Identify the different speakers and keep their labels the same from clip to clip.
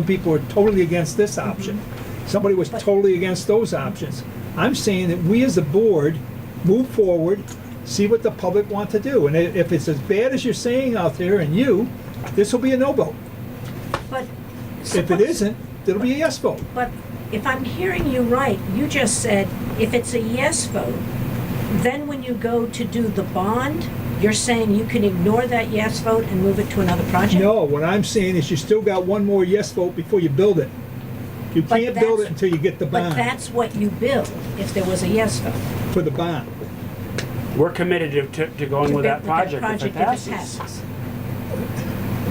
Speaker 1: Some people are totally against this
Speaker 2: Mm-hmm.
Speaker 1: option. Somebody was totally against those options. I'm saying that we as a board move forward, see what the public want to do. And i- if it's as bad as you're saying out there and you, this will be a no vote.
Speaker 2: But.
Speaker 1: If it
Speaker 2: suppose-
Speaker 1: isn't, it'll be a yes vote.
Speaker 2: But if I'm hearing you right, you just said if it's a yes vote, then when you go to do the bond, you're saying you can ignore that yes vote and move it to another project?
Speaker 1: No, what I'm saying is you still got one more yes vote before you build it. You
Speaker 2: But
Speaker 1: can't build
Speaker 2: that's-
Speaker 1: it until you get the
Speaker 2: But
Speaker 1: bond,
Speaker 2: that's what you build if there was a yes vote.
Speaker 1: for the bond.
Speaker 3: We're committed to- to, to going
Speaker 2: to
Speaker 3: with that
Speaker 2: build-
Speaker 3: project if it passes.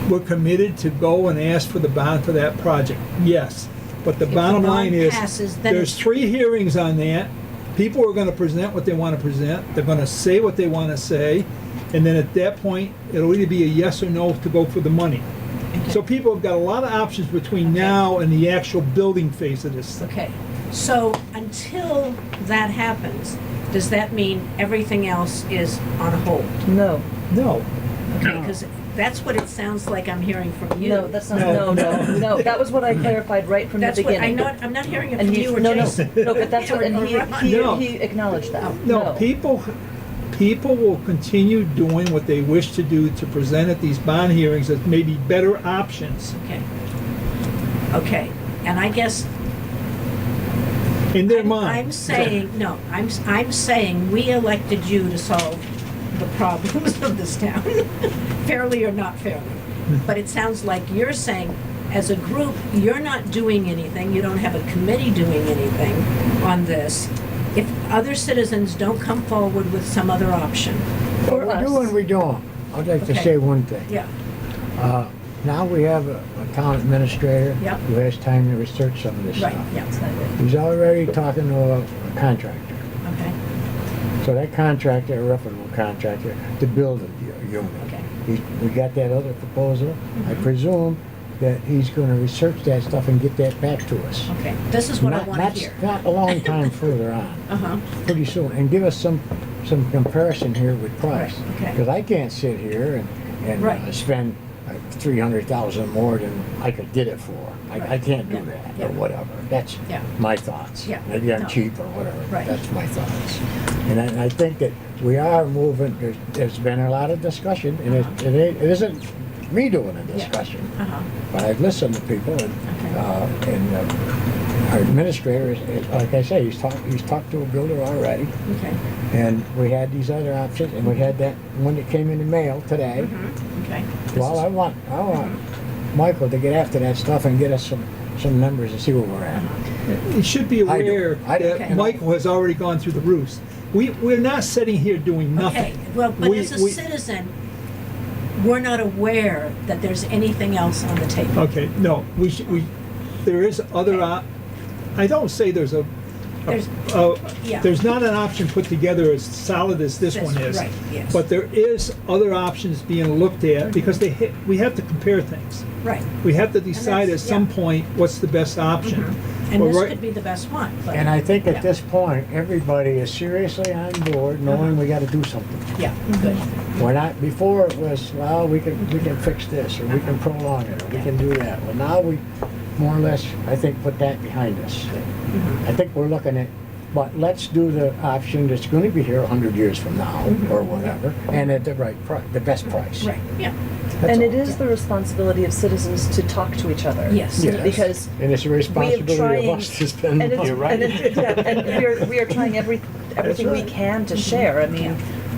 Speaker 1: We're committed to go and ask for the bond for that project, yes. But the
Speaker 2: the
Speaker 1: bottom line
Speaker 2: bond
Speaker 1: is,
Speaker 2: passes, then
Speaker 1: there's
Speaker 2: it's-
Speaker 1: three hearings on that. People are gonna present what they wanna present, they're gonna say what they wanna say, and then at that point, it'll either be a yes or no to go for the money. So people have got a lot of options between now and the actual building phase of this thing.
Speaker 2: Okay, so until that happens, does that mean everything else is on hold?
Speaker 4: No,
Speaker 1: No,
Speaker 2: Okay, because that's what it sounds like I'm hearing from you.
Speaker 4: no, that's not,
Speaker 1: No.
Speaker 4: no, no, no, that was what I clarified right from the
Speaker 2: That's what, I
Speaker 4: beginning.
Speaker 2: know, I'm not hearing it
Speaker 4: And
Speaker 2: from
Speaker 4: he,
Speaker 2: you or
Speaker 4: no, no,
Speaker 2: Jason.
Speaker 4: no, but that's what, and he,
Speaker 1: No.
Speaker 4: he, he acknowledged that,
Speaker 1: no,
Speaker 4: no.
Speaker 1: people, people will continue doing what they wish to do to present at these bond hearings as maybe better options.
Speaker 2: Okay. Okay, and I guess.
Speaker 1: In their
Speaker 2: I'm-
Speaker 1: mind.
Speaker 2: I'm saying, no, I'm, s- I'm saying we elected you to solve the problems of this town, fairly or not fairly. But it sounds like you're saying, as a group, you're not doing anything, you don't have a committee doing anything on this. If other citizens don't come forward with some other option,
Speaker 4: For
Speaker 5: What we do
Speaker 4: us.
Speaker 5: and we don't. I'd like to
Speaker 2: Okay.
Speaker 5: say one thing.
Speaker 2: yeah,
Speaker 5: Uh, Now we have a a town administrator
Speaker 2: Yep.
Speaker 5: who has time to research some of this
Speaker 2: right,
Speaker 5: stuff.
Speaker 2: yeah,
Speaker 5: He's already talking to a a contractor.
Speaker 2: okay,
Speaker 5: So that contractor, a reputable contractor, to build a u- unit.
Speaker 2: Okay. Mm-hmm.
Speaker 5: He- We got that other proposal. I presume that he's gonna research that stuff and get that back to us.
Speaker 2: okay. This is what I
Speaker 5: Not-
Speaker 2: want
Speaker 5: not-
Speaker 2: to hear.
Speaker 5: Not a long time further on.
Speaker 2: Uh-huh,
Speaker 5: pretty soon and give us some, some comparison here with price.
Speaker 2: Right, okay.
Speaker 5: Because I can't sit here and, and
Speaker 2: Right.
Speaker 5: uh, spend three hundred thousand more than I could get it for. I, I can't do
Speaker 2: Right,
Speaker 5: that,
Speaker 2: yeah.
Speaker 5: or whatever. That's
Speaker 2: Yeah.
Speaker 5: my thoughts.
Speaker 2: Yeah,
Speaker 5: Maybe I'm
Speaker 2: no.
Speaker 5: cheap or whatever.
Speaker 2: Right.
Speaker 5: That's my thoughts. And I, and I think that we are moving, there's, there's been a lot of discussion and it, it ain't- it isn't me doing a discussion.
Speaker 2: uh-huh.
Speaker 5: But I've listened to people and, uh, and uh, our administrator, is- is- like I say, he's talked, he's talked to a builder already.
Speaker 2: Okay,
Speaker 5: And we had these other options and we had that one that came in the mail
Speaker 2: okay.
Speaker 5: today.
Speaker 2: Mm-hmm. This
Speaker 5: Well,
Speaker 2: is- Mm-hmm.
Speaker 5: I want, I want Michael to get after that stuff and get us some, some numbers and see where we're at.
Speaker 1: You should be
Speaker 5: I don't-
Speaker 1: aware
Speaker 5: I don't-
Speaker 1: that
Speaker 2: Okay.
Speaker 1: Michael has already gone through the roost. We, we're not sitting here doing
Speaker 2: Okay,
Speaker 1: nothing.
Speaker 2: well, but
Speaker 1: We-
Speaker 2: as a
Speaker 1: we-
Speaker 2: citizen, we're not aware that there's anything else on the table.
Speaker 1: Okay, no, we, should- we, there is other, op- I don't say there's a,
Speaker 2: There's,
Speaker 1: a-
Speaker 2: Yeah.
Speaker 1: there's not an option put together as solid as this
Speaker 2: That's
Speaker 1: one is.
Speaker 2: right, yes. Mm-hmm.
Speaker 1: But there is other options being looked at because they, hit- we have to compare things.
Speaker 2: right,
Speaker 1: We have to decide at
Speaker 2: that's-
Speaker 1: some
Speaker 2: yeah. Mm-hmm.
Speaker 1: point what's the best option.
Speaker 2: and
Speaker 1: But
Speaker 2: this
Speaker 1: right-
Speaker 2: could be the best one, but.
Speaker 5: And I think
Speaker 2: yeah,
Speaker 5: at this point, everybody is seriously on board knowing we gotta do something.
Speaker 2: Yeah, good,
Speaker 5: We're not, before it was, well, we can, we can fix this, or we can prolong it, or we can do that. Well, now we, more or less, I think, put that behind us. I think we're looking at, but let's do the option that's gonna be here a hundred years from now,
Speaker 4: Mm-hmm.
Speaker 5: or whatever, and at the right price, the best price.
Speaker 2: right, yeah,
Speaker 5: That's
Speaker 4: And it
Speaker 5: all.
Speaker 4: is the responsibility of citizens to talk to each other.
Speaker 2: yes.
Speaker 5: Yes.
Speaker 4: because
Speaker 5: And it's a responsibility
Speaker 4: trying-
Speaker 5: of us to spend
Speaker 4: And it's,
Speaker 5: money.
Speaker 3: You're right.
Speaker 4: and it, yeah, and we are, we are trying every, everything we
Speaker 5: right.
Speaker 4: can to share, I mean,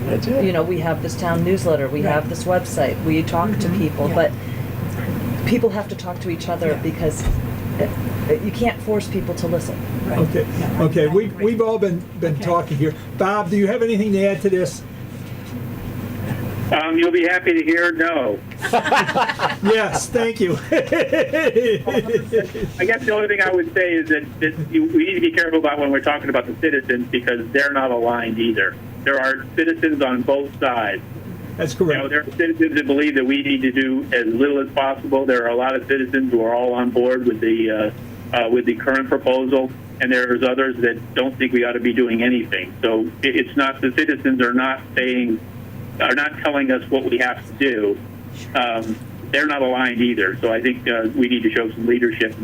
Speaker 5: That's it.
Speaker 4: you know, we have this town newsletter, we
Speaker 2: Right. Mm-hmm.
Speaker 4: have this website, we talk to people,
Speaker 2: yeah.
Speaker 4: but people have to talk to each other
Speaker 2: Yeah.
Speaker 4: because uh, you can't force people to listen.
Speaker 2: right,
Speaker 1: Okay,
Speaker 2: yeah, I-
Speaker 1: okay,
Speaker 2: I
Speaker 1: we,
Speaker 2: agree.
Speaker 1: we've all been, been
Speaker 2: Okay.
Speaker 1: talking here. Bob, do you have anything to add to this?
Speaker 6: Um, you'll be happy to hear no.
Speaker 1: Yes, thank you.
Speaker 6: I guess the only thing I would say is that, that you, we need to be careful about when we're talking about the citizens because they're not aligned either. There are citizens on both sides.
Speaker 1: That's
Speaker 6: You know,
Speaker 1: correct.
Speaker 6: there are citizens that believe that we need to do as little as possible. There are a lot of citizens who are all on board with the uh, uh, with the current proposal, and there's others that don't think we ought to be doing anything. So it, it's not the citizens are not saying are not telling us what we have to do. Um, they're not aligned either. So I think uh, we need to show some leadership